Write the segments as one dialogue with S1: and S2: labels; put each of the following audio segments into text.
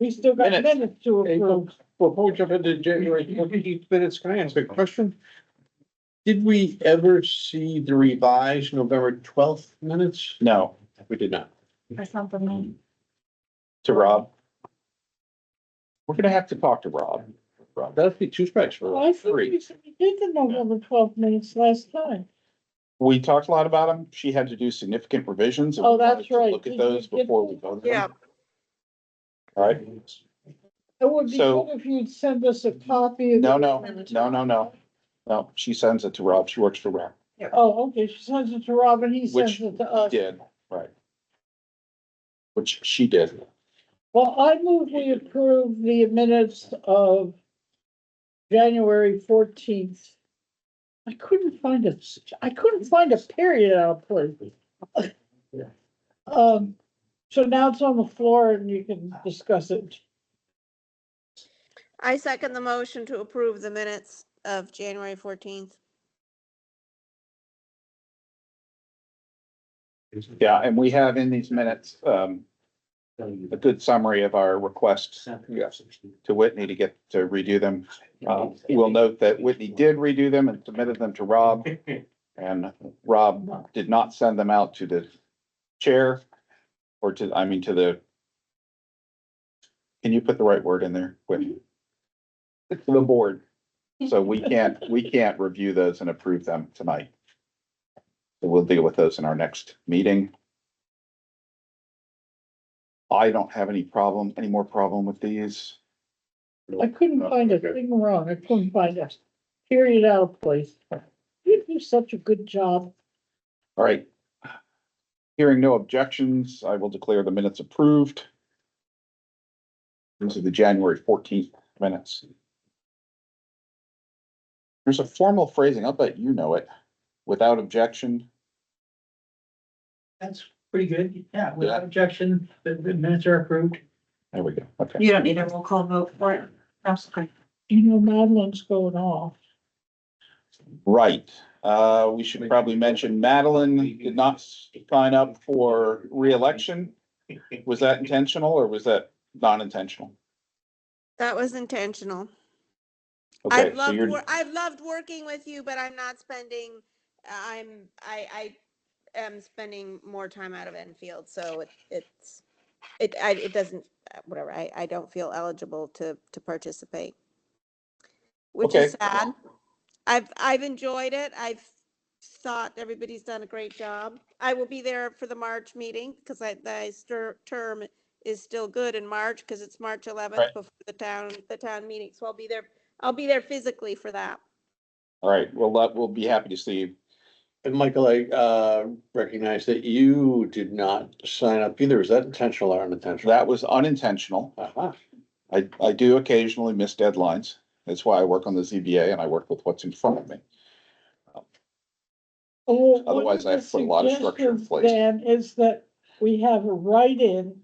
S1: We still got
S2: Minutes.
S1: minutes to
S3: April,
S1: approve.
S3: before we jump into January fourteenth minutes, can I ask a question? Did we ever see the revised November twelfth minutes?
S2: No,
S3: We did not.
S4: Or something.
S2: to Rob. We're gonna have to talk to Rob. Rob,
S3: That'd be two strikes for
S1: I
S3: us.
S1: think we
S3: three.
S1: said we did the November twelfth minutes last time.
S2: we talked a lot about him. She had to do significant revisions. and
S1: Oh,
S2: we wanted
S1: that's
S2: to
S1: right.
S2: Look
S1: Did
S2: at
S1: you
S2: those
S1: get
S2: before we
S1: those?
S2: voted.
S5: Yeah,
S2: All right.
S1: It would be
S2: So-
S1: good if you'd send us a copy of.
S2: No,
S1: the-
S2: no, no, no, no. No, she sends it to Rob. She works for Rob.
S1: Oh, okay, she sends it to Rob and he
S2: Which
S1: sends it to
S2: He
S1: us.
S2: did, right. Which she did.
S1: Well, I move we approve the minutes of January fourteenth. I couldn't find a, I couldn't find a period out of place. Um, so now it's on the floor and you can discuss it.
S5: I second the motion to approve the minutes of January fourteenth.
S2: Yeah, and we have in these minutes, um, a good summary of our requests
S3: Yes.
S2: to Whitney to get to redo them. Uh,
S3: Um,
S2: we'll note that Whitney did redo them and submitted them to
S3: um,
S2: Rob. And Rob did not send them out to the chair or to, I mean, to the. Can you put the right word in there, Whitney? To the board. So we can't, we can't review those and approve them tonight. So we'll deal with those in our next meeting. I don't have any problem, any more problem with these.
S1: I couldn't find a
S2: Okay.
S1: thing wrong. I couldn't find a period out of place. You do such a good job.
S2: All right. Hearing no objections, I will declare the minutes approved. These are the January fourteenth minutes. There's a formal phrasing, I'll bet you know it, without objection.
S6: That's pretty good. Yeah,
S2: Yeah.
S6: without objection, the, the minutes are approved.
S2: There we go, okay.
S4: You don't need a roll call vote for it. That's okay.
S1: You know, Madeline's going off.
S2: Right, uh, we should probably mention Madeline did not sign up for reelection. Was that intentional or was that non-intentional?
S5: That was intentional.
S2: Okay,
S5: I've
S2: so
S5: loved,
S2: you're-
S5: wor- I've loved working with you, but I'm not spending, I'm, I, I am spending more time out of Enfield, so it- it's, it, I, it doesn't, uh, whatever, I, I don't feel eligible to, to participate. Which is
S2: Okay.
S5: sad. I've, I've enjoyed it. I've thought everybody's done a great job. I will be there for the March meeting because I, the stir- term is still good in March because it's March
S2: Right.
S5: eleventh before the town, the town meeting. So I'll be there I'll be there physically for that.
S2: All right, well, that, we'll be happy to see you.
S3: And Michael, I, uh, recognize that you did not sign up either. Is that intentional or unintentional?
S2: That was unintentional.
S3: Uh-huh.
S2: I, I do occasionally miss deadlines. That's why I work on the ZBA and I work with what's in front of me.
S1: Oh, one
S2: Otherwise, I
S1: the
S2: have put a lot of structure in
S1: suggestions
S2: place.
S1: Then is that we have a write-in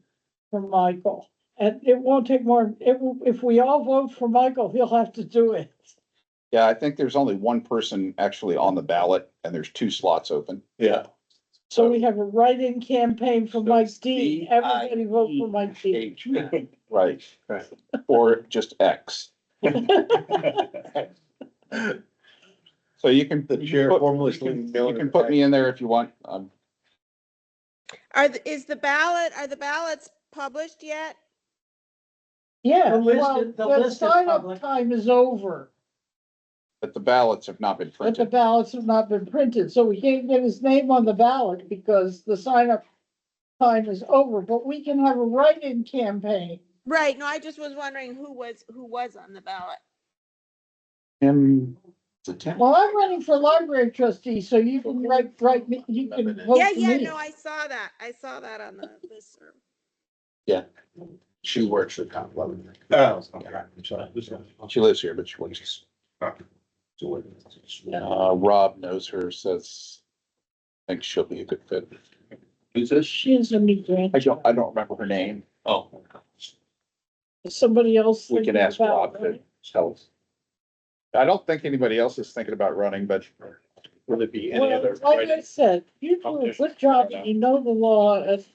S1: for Michael, and it won't take more, it, will- if we all vote for Michael, he'll have to do it.
S2: Yeah, I think there's only one person actually on the ballot and there's two slots open.
S3: Yeah.
S1: So we have a write-in campaign for
S3: So
S1: Mike
S3: it's
S1: D,
S3: D
S2: E.
S3: I
S1: everybody vote for Mike D.
S3: H.
S2: Right.
S3: Right.
S2: Or just X. So you can,
S3: The
S2: you
S3: chair
S2: can put-
S3: formally
S2: you can-
S3: known
S2: you can
S3: as
S2: put
S3: X.
S2: me in there if you want. Um,
S5: Are, the- is the ballot, are the ballots published yet?
S1: Yeah,
S6: The list
S1: well,
S6: is- the
S1: the
S6: list is
S1: sign-up
S6: public.
S1: time is over,
S2: but the ballots have not been
S1: but the
S2: printed.
S1: ballots have not been printed, so we can't get his name on the ballot because the sign-up time is over, but we can have a write-in campaign.
S5: Right, no, I just was wondering who was, who was on the ballot.
S2: Tim, is it Tim?
S1: Well, I'm running for library trustee, so you can write, write me, you can vote
S5: Yeah,
S1: for
S5: yeah,
S1: me.
S5: no, I saw that. I saw that on the listserv.
S3: She works for Tom Levin.
S7: Oh,
S2: She lives here, but she works. Uh, Rob knows her, says, I think she'll be a good fit.
S7: Who's this?
S1: She is a new
S2: I
S1: grant,
S2: don't, I don't remember her name.
S7: Oh.
S1: somebody else.
S2: We can
S1: thinking
S2: ask
S1: about
S2: Rob to
S1: it.
S2: tell us. I don't think anybody else is thinking about running, but
S3: Will there be any
S1: Well,
S3: other?
S1: like I said, you do a
S2: competition?
S1: good job, and you know the law, and